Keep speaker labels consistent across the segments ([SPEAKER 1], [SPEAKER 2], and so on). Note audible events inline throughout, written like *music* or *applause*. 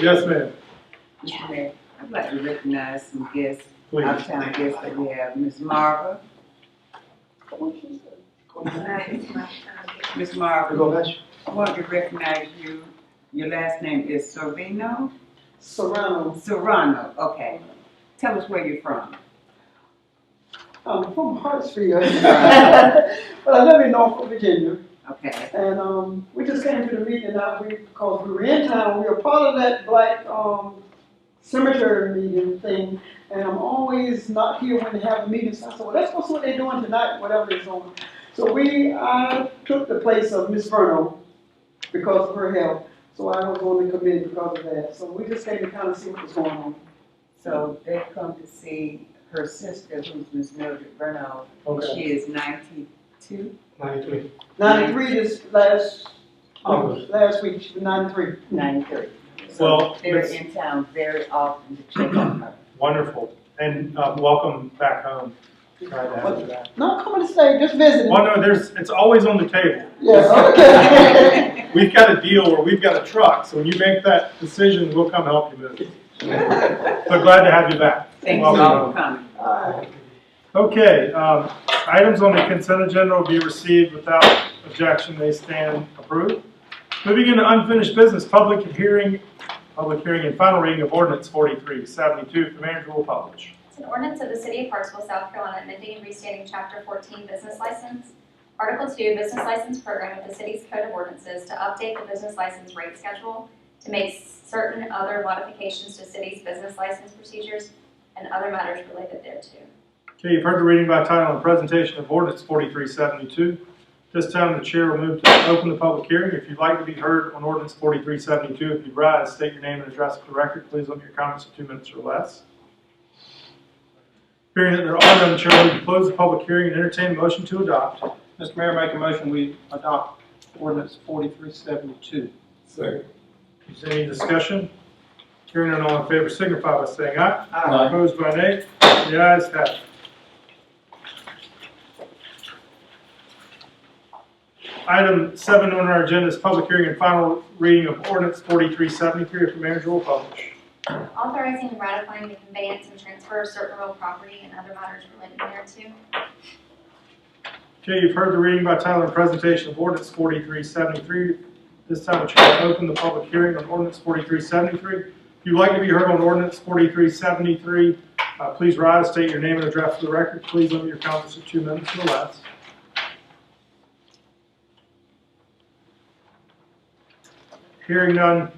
[SPEAKER 1] Yes, ma'am,
[SPEAKER 2] Mr. Mayor, I'd like to recognize some guests,
[SPEAKER 1] please.
[SPEAKER 2] out-of-town guests that we have, Ms. Marva. Ms. Marva, I want to recognize you, your last name is Sorvino?
[SPEAKER 3] Serrano,
[SPEAKER 2] Serrano, okay. Tell us where you're from.
[SPEAKER 3] um, from Hartsfield, but I live in Norfolk, Virginia,
[SPEAKER 2] Okay,
[SPEAKER 3] and, um, we just came to the meeting out, we, because we were in town, we were part of that black, um, cemetery meeting thing, and I'm always not here when they have a meeting, so I said, well, that's what's what they're doing tonight, whatever it's on. So we, I took the place of Miss Verno because of her health, so I was on the committee because of that, so we just came to kind of see what was going on.
[SPEAKER 2] so they come to see her sister, who's Ms. Mildred Reynolds.
[SPEAKER 1] Okay,
[SPEAKER 2] She is ninety-two.
[SPEAKER 1] ninety-three.
[SPEAKER 3] Ninety-three this last,
[SPEAKER 1] Okay.
[SPEAKER 3] last week, she was ninety-three.
[SPEAKER 2] Ninety-three.
[SPEAKER 1] Well,
[SPEAKER 2] They're
[SPEAKER 1] it's-
[SPEAKER 2] in town very often to check
[SPEAKER 1] *coughs*
[SPEAKER 2] on her.
[SPEAKER 1] Wonderful, and, uh, welcome back home. Glad to have you back.
[SPEAKER 3] No, come and stay, just visit.
[SPEAKER 1] Well, no, there's, it's always on the table.
[SPEAKER 3] Yes, okay.
[SPEAKER 1] We've got a deal where we've got a truck, so when you make that decision, we'll come help you move it. So glad to have you back.
[SPEAKER 2] Thanks
[SPEAKER 1] Welcome
[SPEAKER 2] all
[SPEAKER 1] home.
[SPEAKER 2] for coming.
[SPEAKER 3] All right.
[SPEAKER 1] Okay, um, items on the consent agenda will be received without objection, they stand approved. Moving into unfinished business, public hearing, public hearing and final reading of ordinance forty-three seventy-two, the manager will publish.
[SPEAKER 4] It's an ordinance of the City of Hartsville, South Carolina, amending and restating Chapter 14 Business License, Article 2 Business License Program of the city's Code of Ordinances to update the business license rate schedule, to make certain other modifications to city's business license procedures and other matters related thereto.
[SPEAKER 1] Okay, you've heard the reading by title and presentation of ordinance forty-three seventy-two. This time, the chair will move to open the public hearing. If you'd like to be heard on ordinance forty-three seventy-two, if you'd rise, state your name and address for the record. Please limit your comments to two minutes or less. Hearing that there are none, the chair will move to close the public hearing and entertain a motion to adopt.
[SPEAKER 5] Mr. Mayor, make a motion, we adopt ordinance forty-three seventy-two.
[SPEAKER 1] Is there any discussion? Hearing none, all in favor signify by saying aye.
[SPEAKER 5] Aye.
[SPEAKER 1] Opposed by nay. The ayes have it. Item seven on our agenda is public hearing and final reading of ordinance forty-three seventy-three. If the manager will publish.
[SPEAKER 4] Authorizing and ratifying the conveyance and transfer of certain real property and other matters related thereto.
[SPEAKER 1] Okay, you've heard the reading by title and presentation of ordinance forty-three seventy-three. This time, the chair will open the public hearing on ordinance forty-three seventy-three. If you'd like to be heard on ordinance forty-three seventy-three, uh, please rise, state your name and address for the record. Please limit your comments to two minutes or less. Hearing none,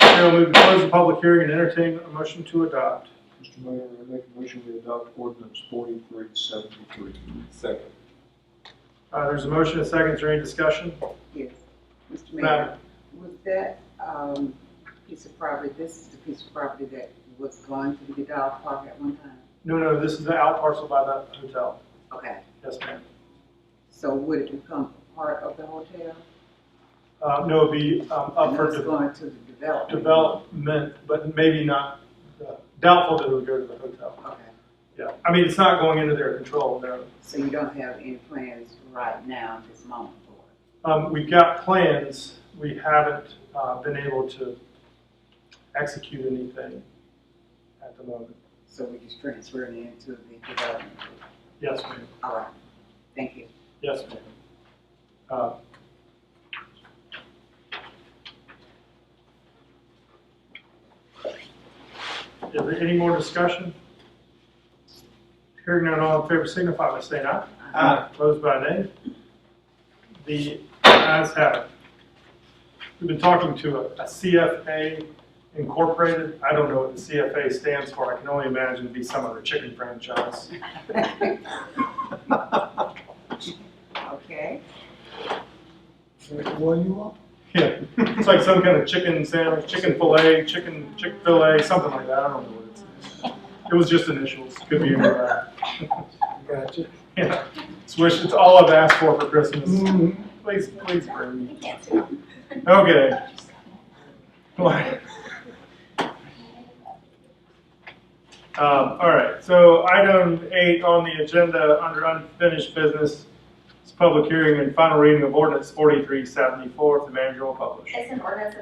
[SPEAKER 1] chair will move to close the public hearing and entertain a motion to adopt.
[SPEAKER 6] Mr. Mayor, I make a motion we adopt ordinance forty-three seventy-three. Second.
[SPEAKER 1] Uh, there's a motion, a second, is there any discussion?
[SPEAKER 2] Yes, Mr.
[SPEAKER 1] Madam.
[SPEAKER 2] Mayor, was that, um, piece of property, this is the piece of property that was going to be the dog park at one time?
[SPEAKER 1] No, no, this is the out parcel by the hotel.
[SPEAKER 2] Okay,
[SPEAKER 1] Yes, ma'am.
[SPEAKER 2] so would it become part of the hotel?
[SPEAKER 1] Uh, No, it'd be um, up
[SPEAKER 2] And
[SPEAKER 1] for
[SPEAKER 2] it's
[SPEAKER 1] de-
[SPEAKER 2] Going to the development?
[SPEAKER 1] development, but maybe not, uh, doubtful that it would go to the hotel.
[SPEAKER 2] Okay,
[SPEAKER 1] Yeah, I mean, it's not going into their control, no.
[SPEAKER 2] so you don't have any plans right now, at this moment for it?
[SPEAKER 1] Um, We've got plans, we haven't uh, been able to execute anything at the moment.
[SPEAKER 2] So we're just transferring it into the development?
[SPEAKER 1] Yes, ma'am,
[SPEAKER 2] All right, thank you.
[SPEAKER 1] yes, ma'am. Uh, Is there any more discussion? Hearing none, all in favor signify by saying aye. Opposed by nay? The ayes have it. We've been talking to a a CFA Incorporated. I don't know what the CFA stands for. I can only imagine it'd be some other chicken franchise.
[SPEAKER 2] Okay,
[SPEAKER 6] Well, you are.
[SPEAKER 1] Yeah, it's like some kind of chicken sandwich, chicken fillet, chicken Chick-fil-A, something like that. I don't know what it's. It was just initials. Could be any of that.
[SPEAKER 6] Gotcha.
[SPEAKER 1] *laughs* Yeah. It's wish, it's all I've asked for for Christmas. Please, please bring me.
[SPEAKER 4] You can't see.
[SPEAKER 1] Okay. Why? Um, all right, so item eight on the agenda under unfinished business is public hearing and final reading of ordinance forty-three seventy-four. The manager will publish.
[SPEAKER 4] It's an ordinance of